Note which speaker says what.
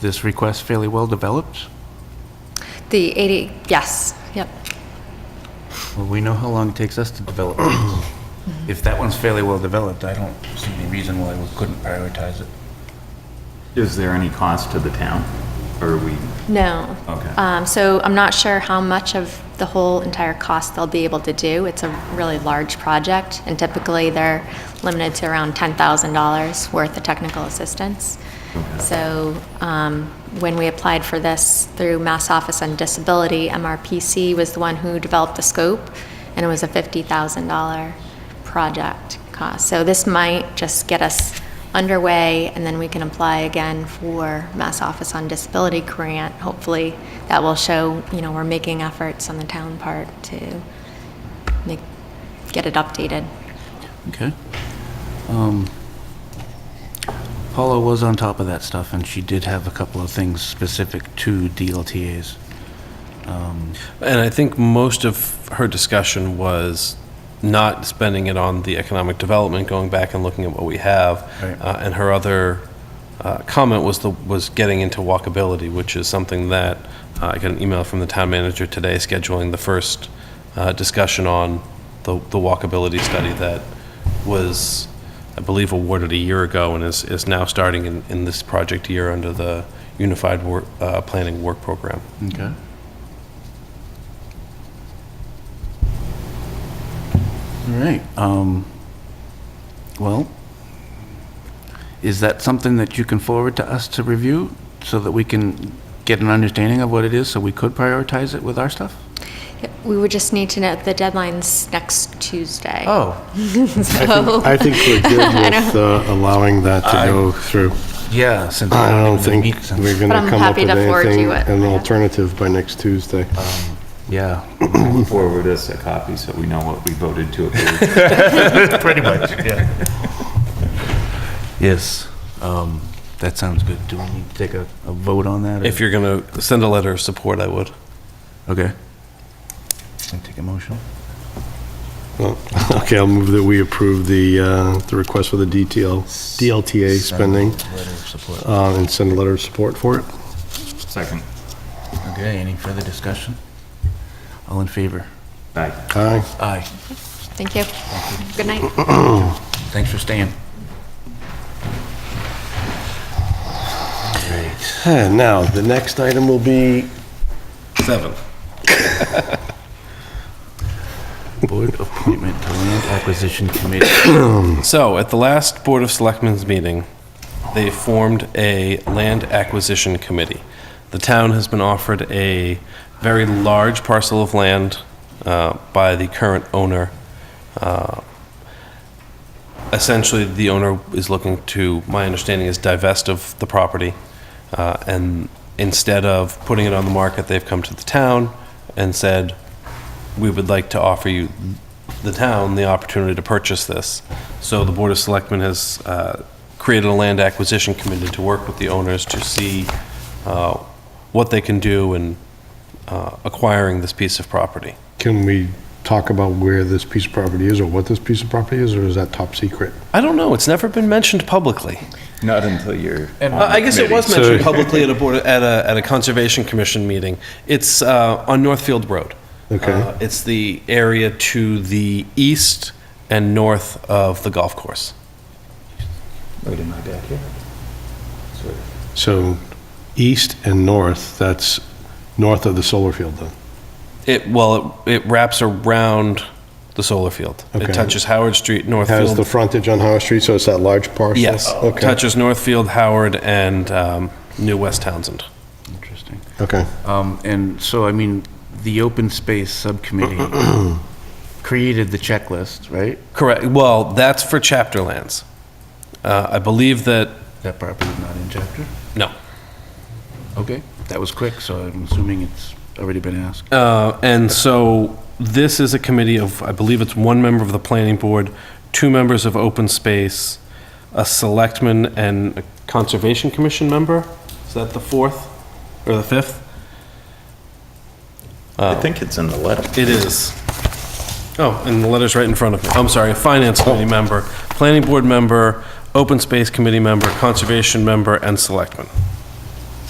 Speaker 1: this request fairly well developed?
Speaker 2: The 80, yes, yep.
Speaker 1: Well, we know how long it takes us to develop. things. If that one's fairly well developed, I don't see any reason why we couldn't prioritize it.
Speaker 3: Is there any cost to the town? Or are we,
Speaker 2: No.
Speaker 3: Okay.
Speaker 2: Um, So I'm not sure how much of the whole entire cost they'll be able to do. It's a really large project, and typically they're limited to around $10,000 worth of technical assistance. So um, when we applied for this through Mass Office on Disability, MRPC was the one who developed the scope, and it was a $50,000 project cost. So this might just get us underway, and then we can apply again for Mass Office on Disability grant. Hopefully, that will show, you know, we're making efforts on the town part to make, get it updated.
Speaker 1: Okay. Um, Paula was on top of that stuff, and she did have a couple of things specific to DLTAs.
Speaker 4: And I think most of her discussion was not spending it on the economic development, going back and looking at what we have.
Speaker 1: Right.
Speaker 4: Uh, And her other uh, comment was the, was getting into walkability, which is something that, uh, I got an email from the town manager today scheduling the first uh, discussion on the, the walkability study that was, I believe, awarded a year ago and is, is now starting in, in this project year under the Unified Work, uh, Planning Work Program.
Speaker 1: Okay. All right, um, well, is that something that you can forward to us to review so that we can get an understanding of what it is, so we could prioritize it with our stuff?
Speaker 2: We would just need to know the deadline's next Tuesday.
Speaker 1: Oh,
Speaker 2: So-
Speaker 5: I think we're good with uh, allowing that to go through.
Speaker 1: yeah, since we
Speaker 5: I don't
Speaker 1: don't even
Speaker 5: think
Speaker 1: meet since,
Speaker 5: we're going
Speaker 2: But I'm
Speaker 5: to come up
Speaker 2: happy
Speaker 5: with
Speaker 2: to forward
Speaker 5: anything,
Speaker 2: you it,
Speaker 5: an
Speaker 2: yeah.
Speaker 5: alternative by next Tuesday.
Speaker 1: yeah.
Speaker 3: forward us a copy so we know what we voted to approve?
Speaker 1: Pretty much, yeah. Yes, um, that sounds good. Do we need to take a, a vote on that? or-
Speaker 4: If you're going to send a letter of support, I would.
Speaker 1: Okay. Can I take a motion?
Speaker 5: Well, Okay, I'll move that we approve the, uh, the request for the DTL, DLTA spending
Speaker 1: Letter of support.
Speaker 5: uh, and send a letter of support for it.
Speaker 3: Second.
Speaker 1: Okay, any further discussion? All in favor?
Speaker 3: Aye.
Speaker 5: Aye.
Speaker 1: Aye.
Speaker 2: Thank you. Good night.
Speaker 1: Thanks for staying. Great.
Speaker 5: And now, the next item will be
Speaker 4: Seven.
Speaker 1: Board appointment to Land Acquisition Committee.
Speaker 4: So, at the last Board of Selectmen's meeting, they formed a land acquisition committee. The town has been offered a very large parcel of land uh, by the current owner. Uh, Essentially, the owner is looking to, my understanding is divest of the property, uh, and instead of putting it on the market, they've come to the town and said, we would like to offer you, the town, the opportunity to purchase this. So the Board of Selectmen has uh, created a land acquisition committee to work with the owners to see uh, what they can do in uh, acquiring this piece of property.
Speaker 5: Can we talk about where this piece of property is or what this piece of property is, or is that top secret?
Speaker 4: I don't know, it's never been mentioned publicly.
Speaker 3: Not until you're on the
Speaker 4: Uh, I guess it was
Speaker 3: committee.
Speaker 4: mentioned publicly at a board, at a, at a Conservation Commission meeting. It's uh, on Northfield Road.
Speaker 5: Okay.
Speaker 4: Uh, It's the area to the east and north of the golf course.
Speaker 3: Right in my backyard. Sort of.
Speaker 5: So east and north, that's north of the solar field then?
Speaker 4: It, well, it, it wraps around the solar field.
Speaker 5: Okay.
Speaker 4: It touches Howard Street,
Speaker 5: Has the
Speaker 4: Northfield.
Speaker 5: frontage on Howard Street, so it's that large parcel?
Speaker 4: Yes,
Speaker 5: Okay,
Speaker 4: touches Northfield, Howard, and um, New West Townsend.
Speaker 1: Interesting.
Speaker 5: okay.
Speaker 1: Um, and so, I mean, the Open Space Subcommittee created the checklist, right?
Speaker 4: Correct, well, that's for chapter lands. Uh, I believe that,
Speaker 1: That property is not in chapter?
Speaker 4: no.
Speaker 1: Okay, that was quick, so I'm assuming it's already been asked.
Speaker 4: Uh, And so this is a committee of, I believe it's one member of the planning board, two members of open space, a selectman and a conservation commission member? Is that the fourth or the fifth?
Speaker 3: I think it's in the letter.
Speaker 4: It is. Oh, and the letter's right in front of me. I'm sorry, a finance committee member, planning board member, open space committee member, conservation member, and selectman.